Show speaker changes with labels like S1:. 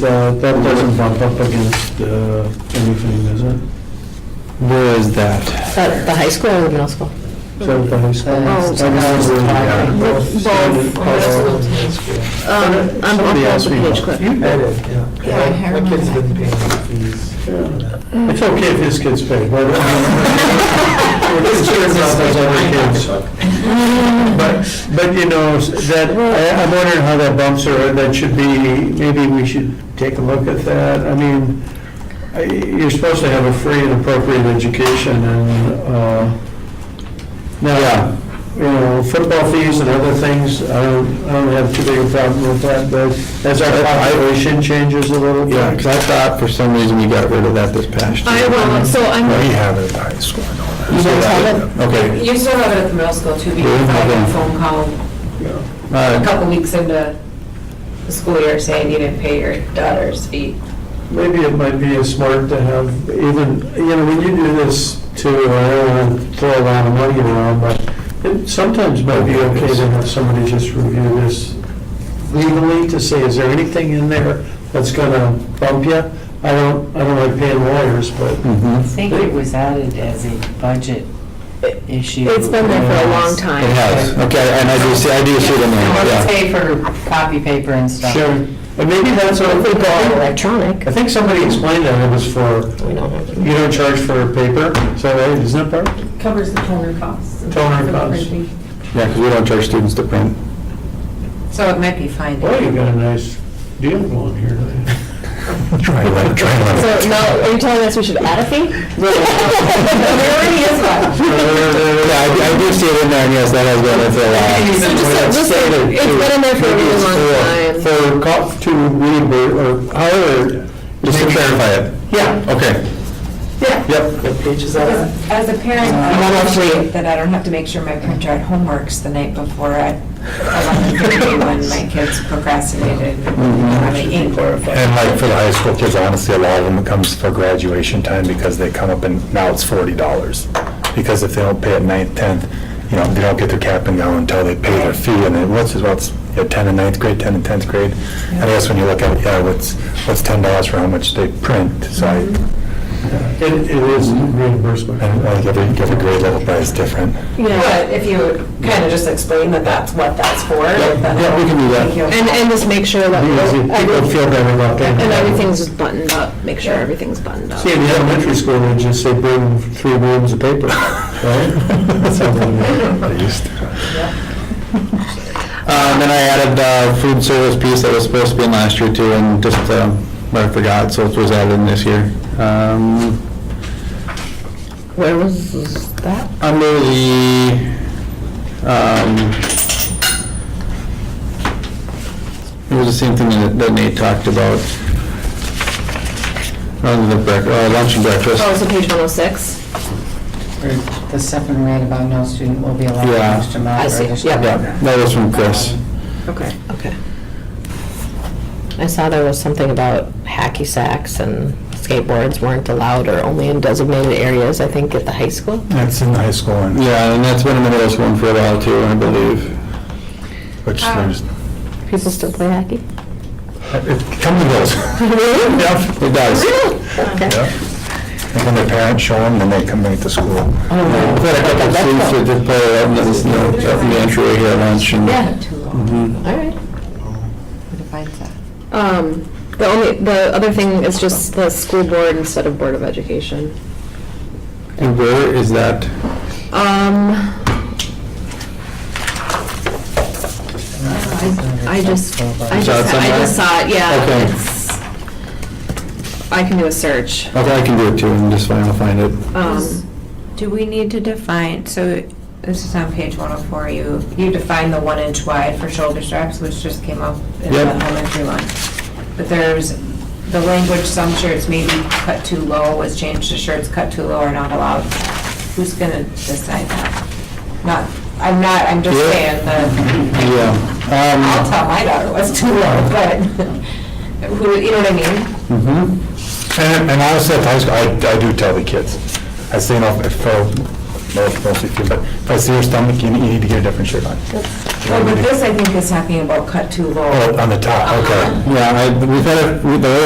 S1: That that doesn't bump up against uh, anything, does it?
S2: Where is that?
S3: At the high school or the middle school?
S1: Is that the high school?
S3: Oh,
S1: I know it's really bad.
S4: Both.
S1: Standard color.
S3: Um, I'm
S1: Somebody
S3: off
S1: asked
S3: the
S1: me
S3: page
S1: about-
S3: quick.
S4: I did, yeah. My kid's been paying fees.
S1: It's okay if his kid's paid, but. His kid's not those other kids. But, but you know, s- that, I- I'm wondering how that bumps are, that should be, maybe we should take a look at that. I mean, I- you're supposed to have a free and appropriate education and, uh, now, you know, football fees and other things, I don't, I don't have too big a problem with that, but as our population changes a little bit.
S2: Yeah, because I thought for some reason we got rid of that this past year.
S3: I will, so
S2: We
S3: I'm,
S2: have it at the high school. I know that.
S3: You guys have it?
S2: Okay,
S5: You still have it at the middle school too, because I had a phone call
S2: all right.
S5: a couple weeks into the school year saying you didn't pay your daughter's fee.
S1: Maybe it might be as smart to have even, you know, when you do this too, I don't want to throw a lot of money around, but it sometimes might be okay to have somebody just review this legally to say, is there anything in there that's going to bump you? I don't, I don't like paying lawyers, but
S2: Mhm.
S6: I think it was added as a budget issue.
S3: it's been there for a long time.
S2: It has, okay, and I do see, I do see the name,
S6: I
S2: yeah.
S6: want to pay for copy paper and stuff.
S1: sure. And maybe that's what I think, I
S3: Electronic.
S1: think somebody explained that it was for,
S3: We don't have
S1: you don't charge for paper, so that isn't that part?
S7: Covers the toner costs.
S1: Toner costs.
S2: Yeah, because we don't charge students to print.
S5: So it might be fine.
S1: Well, you got a nice deal going here.
S2: Try to let, try to
S3: So now, are you telling us we should add a fee? There already is one.
S2: Yeah, I I do see it in there, and yes, that has been there for a while.
S3: So just- just- it's been in there for a really long time.
S1: For cough to reimburse, or however.
S2: Just to clarify it.
S1: Yeah.
S2: Okay.
S1: Yeah.
S2: Yep.
S1: What page is that?
S5: As a parent,
S3: I'm
S5: I
S3: not free.
S5: appreciate that I don't have to make sure my printer had homeworks the night before at 11:30 when my kids procrastinated on the ink.
S2: And like for the high school kids, honestly, a lot of them comes for graduation time because they come up and now it's forty dollars. Because if they don't pay at ninth, tenth, you know, they don't get their cap and gown until they pay their fee. And then what's, what's, you know, ten and ninth grade, ten and tenth grade. And I guess when you look at, it, yeah, what's, what's ten dollars for how much they print, so I,
S1: It, it is reimbursement.
S2: and like every, every grade level price is different.
S3: Yeah,
S5: But if you kind of just explain that that's what that's for, then
S1: yeah, we can do that.
S5: I think you'll-
S3: and, and just make sure that,
S1: Because if people
S3: we're-
S1: feel better about that.
S3: and everything's just buttoned up, make sure everything's buttoned up.
S1: See, in the elementary school, they just say bring three rolls of paper, right? That sounds like-
S2: Um, then I added the food service piece that was supposed to be in last year too, and just, um, I forgot, so it was added in this year. Um,
S3: Where was that?
S2: under the, um, it was the same thing that that Nate talked about. Under the breakfast, uh, lunch and breakfast.
S3: Oh, so page one oh six?
S6: For The second rate about no student will be allowed to
S2: Yeah.
S6: host a
S3: I see.
S6: moderate.
S3: Yeah.
S2: Yeah, that was from Chris.
S3: Okay. Okay. I saw there was something about hacky sacks and skateboards weren't allowed or only in designated areas, I think, at the high school.
S2: That's in the high school one. Yeah, and that's been in the middle school one for a while too, I believe. Which there's,
S3: People still play hacky?
S2: it comes and goes.
S3: Really?
S2: Yeah, it does.
S3: Okay.
S2: Yeah. And when their parents show them, then they come back to school.
S3: Oh,
S2: I've had a couple of students that did play up in the, you know, up in the entryway here at lunch and.
S3: Yeah,
S6: Too long
S5: Mm-hmm.
S2: Mhm.
S3: all right.
S6: to find that.
S3: Um, the only, the other thing is just the school board instead of Board of Education.
S2: And where is that?
S3: Um, I just, I just, I
S2: Is that
S3: just
S2: somewhere?
S3: saw it, yeah.
S2: Okay.
S3: it's- I can do a search.
S2: I thought I can do it too, I'm just fine, I'll find it.
S3: Um,
S5: Do we need to define, so this is on page 104, you, you define the one inch wide for shoulder straps, which just came up in the
S2: Yep.
S5: elementary one. But there's, the language, some shirts may be cut too low was changed to shirts cut too low are not allowed. Who's gonna decide that? Not, I'm not, I'm just
S2: Yeah.
S5: saying that, I'll
S2: Yeah.
S5: tell my daughter what's too low, but, who, you know what I mean?
S2: Um, mhm. And and honestly, at the high school, I, I do tell the kids. I say, you know, if, uh, most- mostly, kids, but if I see your stomach, you you need to get a different shirt on.
S5: Well, but this, I think, is talking about cut too low.
S2: Oh, on the top, okay. Yeah, I, we've had, it- the other